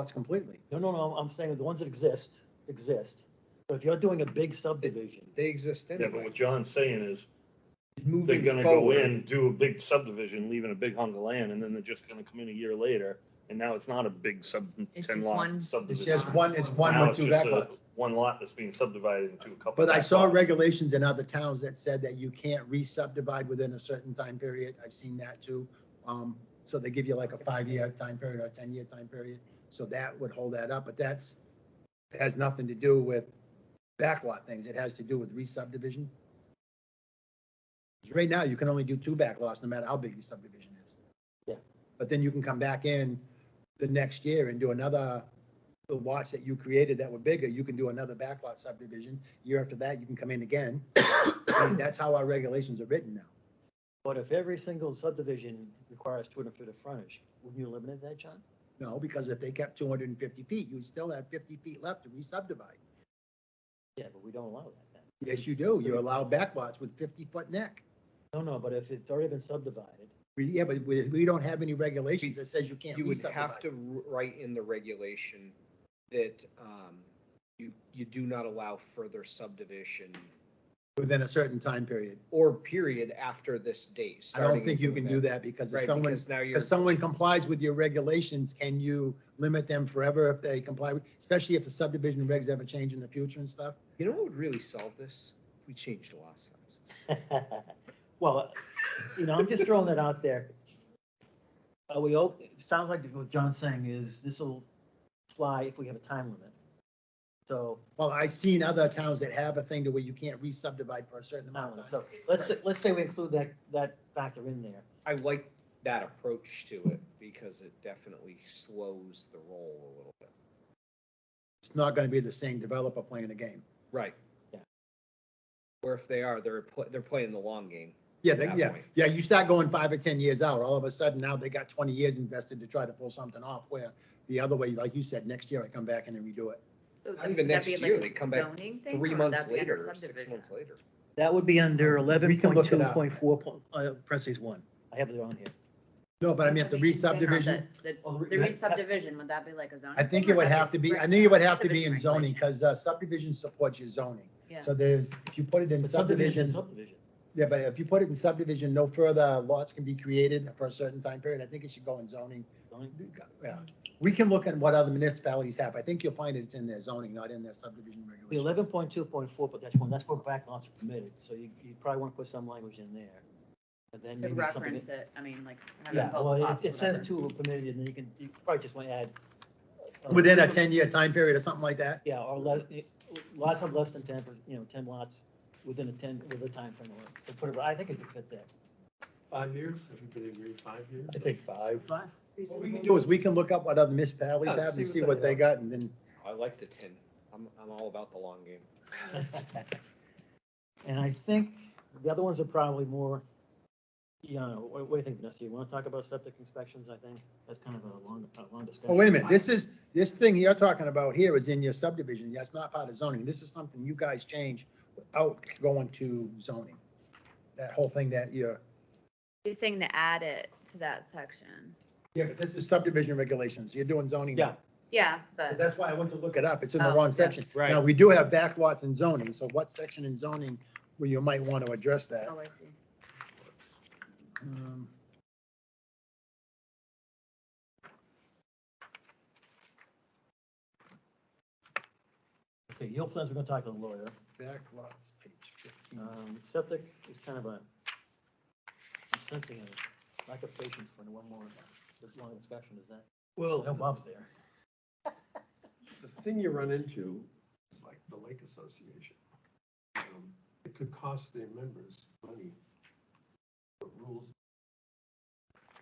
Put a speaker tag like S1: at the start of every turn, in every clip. S1: lots completely.
S2: No, no, no, I'm saying the ones that exist, exist. But if you're doing a big subdivision,
S1: They exist
S3: Yeah, but
S1: anyway.
S3: what John's saying is, they're
S1: Moving
S3: gonna go
S1: forward.
S3: in, do a big subdivision, leaving a big hunk of land, and then they're just gonna come in a year later, and now it's not a big sub,
S4: It's
S3: ten
S4: just
S3: lot
S4: one-
S1: It's
S3: subdivision.
S1: just one, it's one
S3: Now
S1: or
S3: it's
S1: two
S3: just a-
S1: backlots.
S3: One lot that's being subdivided into a couple.
S5: But I saw
S3: backlots.
S5: regulations in other towns that said that you can't re-subdivide within a certain time period. I've seen that too. Um, so they give you like a five-year time period or a ten-year time period. So that would hold that up, but that's, it has nothing to do with backlot things. It has to do with re-subdivision. 'Cause Right now, you can only do two backlots, no matter how big your subdivision is.
S2: Yeah.
S5: But then you can come back in the next year and do another, the lots that you created that were bigger, you can do another backlot subdivision year after that, you can come in again. I mean, That's how our regulations are written now.
S2: but if every single subdivision requires two hundred feet of frontage, wouldn't you eliminate that, John?
S5: No, because if they kept two hundred and fifty feet, you still have fifty feet left to re-subdivide.
S2: Yeah, but we don't allow that then.
S5: Yes, you do. You allow backlots with fifty-foot neck.
S2: No, no, but if it's already been subdivided,
S5: We- Yeah, but we, we don't have any regulations that says you can't
S1: You would have
S5: re-subdivide.
S1: to wr- write in the regulation that um, you, you do not allow further subdivision
S5: Within a certain time period.
S1: or period after this date.
S5: I don't
S1: starting
S5: think you
S1: with
S5: can do that because if
S1: Right,
S5: someone,
S1: because now you're.
S5: if someone complies with your regulations, can you limit them forever if they comply with, especially if the subdivision regs ever change in the future and stuff?
S1: You know what would really solve this? If we changed lot sizes.
S2: well, you know, I'm just throwing that out there. Are we, o- it sounds like what John's saying is this will fly if we have a time limit. So,
S5: Well, I've seen other towns that have a thing to where you can't re-subdivide for a certain amount of time.
S2: so let's, say- let's say we include that, that factor in there.
S1: I like that approach to it because it definitely slows the roll a little bit.
S5: It's not gonna be the same developer playing the game.
S1: Right.
S2: Yeah.
S1: Or if they are, they're, pl- they're playing the long game.
S5: Yeah, they-
S1: That
S5: yeah,
S1: point.
S5: yeah, you start going five or ten years out, all of a sudden now they got twenty years invested to try to pull something off where the other way, like you said, next year I come back and then redo it.
S4: So
S1: Not
S4: would
S1: even
S4: that
S1: next
S4: be like
S1: year,
S4: a
S1: they come back
S4: zoning thing, or
S1: Three
S4: would
S1: months
S4: that be under
S1: later, or six
S4: subdivision?
S1: months later.
S2: That would be under
S5: We
S2: eleven
S5: can
S2: point
S5: look it
S2: two
S5: up.
S2: point four, uh, parentheses one. I have it on here.
S5: No, but I mean, if the
S4: Subdivision thing or
S5: re-subdivision,
S2: Oh,
S4: The the- the
S2: yeah.
S4: re-subdivision, would that be like a zoning?
S5: I think
S4: thing,
S5: it
S4: or
S5: would
S4: that
S5: have to be, I
S4: reg-
S5: think it would have to be
S4: subdivision
S5: in zoning,
S4: regulation?
S5: because subdivision supports your zoning.
S4: Yeah.
S5: So there's, if you put it in
S2: But subdivision,
S5: subdivision,
S2: subdivision.
S5: yeah, but if you put it in subdivision, no further lots can be created for a certain time period. I think it should go in zoning.
S2: zoning.
S5: Yeah, we can look at what other municipalities have. I think you'll find it's in their zoning, not in their subdivision
S2: The
S5: regulations.
S2: eleven point two point four, but that's one, that's where backlots are permitted, so you, you probably want to put some language in there. And then
S4: To
S2: maybe something.
S4: reference it, I mean, like. have it
S2: Yeah,
S4: both
S2: well,
S4: spots,
S2: it, it says
S4: whatever.
S2: two are permitted, and you can, you probably just want to add. uh,
S5: Within a ten-year time period or something like that?
S2: Yeah, or le- it- lots of less than ten, per- you know, ten lots within a ten, with a time frame. of it. So put it, I think it could fit there.
S6: Five years, everybody agreed, five years?
S3: I think five.
S2: Five.
S5: What we can do is we can look up what other municipalities
S6: Yeah,
S5: have and
S6: see
S5: see
S6: what
S5: what
S6: they
S5: they got and then,
S1: I like the ten. I'm, I'm all about the long game.
S2: And I think the other ones are probably more, you know, what, what do you think, Vanessa? You want to talk about septic inspections, I think? That's kind of a long, a long discussion.
S5: oh, wait a minute, this is, this thing you're talking about here is in your subdivision. That's not part of zoning. This is something you guys change without going to zoning. That whole thing that you're,
S4: He's saying to add it to that section.
S5: yeah, but this is subdivision regulations. You're doing zoning. now.
S2: Yeah.
S4: Yeah,
S5: 'Cause
S4: but
S5: That's why I went to look it up. It's in the
S4: Oh, yeah.
S5: wrong section.
S1: Right.
S5: Now, we do have backlots in zoning, so what section in zoning where you might want to address that?
S4: oh, I see.
S5: Um,
S2: Okay, yield plans, we're gonna talk to the lawyer.
S5: Backlots, page 15.
S2: Um, septic is kind of a, I'm sensing a lack of patience for one more, this long discussion, is that? I know
S6: Well,
S2: Bob's there.
S6: the thing you run into is like the Lake Association. Um, It could cost their members money, but rules.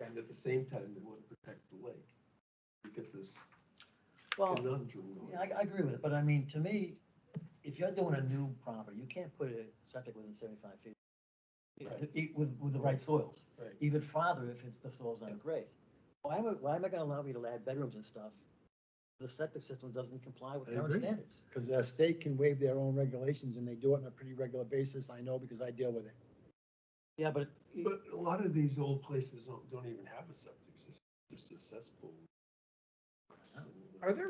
S6: And at the same time, they want to protect the lake. You get this
S2: Well,
S6: conundrum going.
S2: Oh. yeah, I, I agree with it, but I mean, to me, if you're doing a new property, you can't put a septic within seventy-five feet.
S6: Right.
S2: E- With, with the right soils.
S6: Right.
S2: even farther if it's, the soil's not great. Why am I, why am I gonna allow me to add bedrooms and stuff? The septic system doesn't comply with
S5: I
S2: current
S5: agree.
S2: standards.
S5: Because the state can waive their own regulations and they do it on a pretty regular basis. I know because I deal with it.
S2: Yeah, but,
S6: But a lot of these old places don't, don't even have a septic system, just a cesspool.
S1: Are there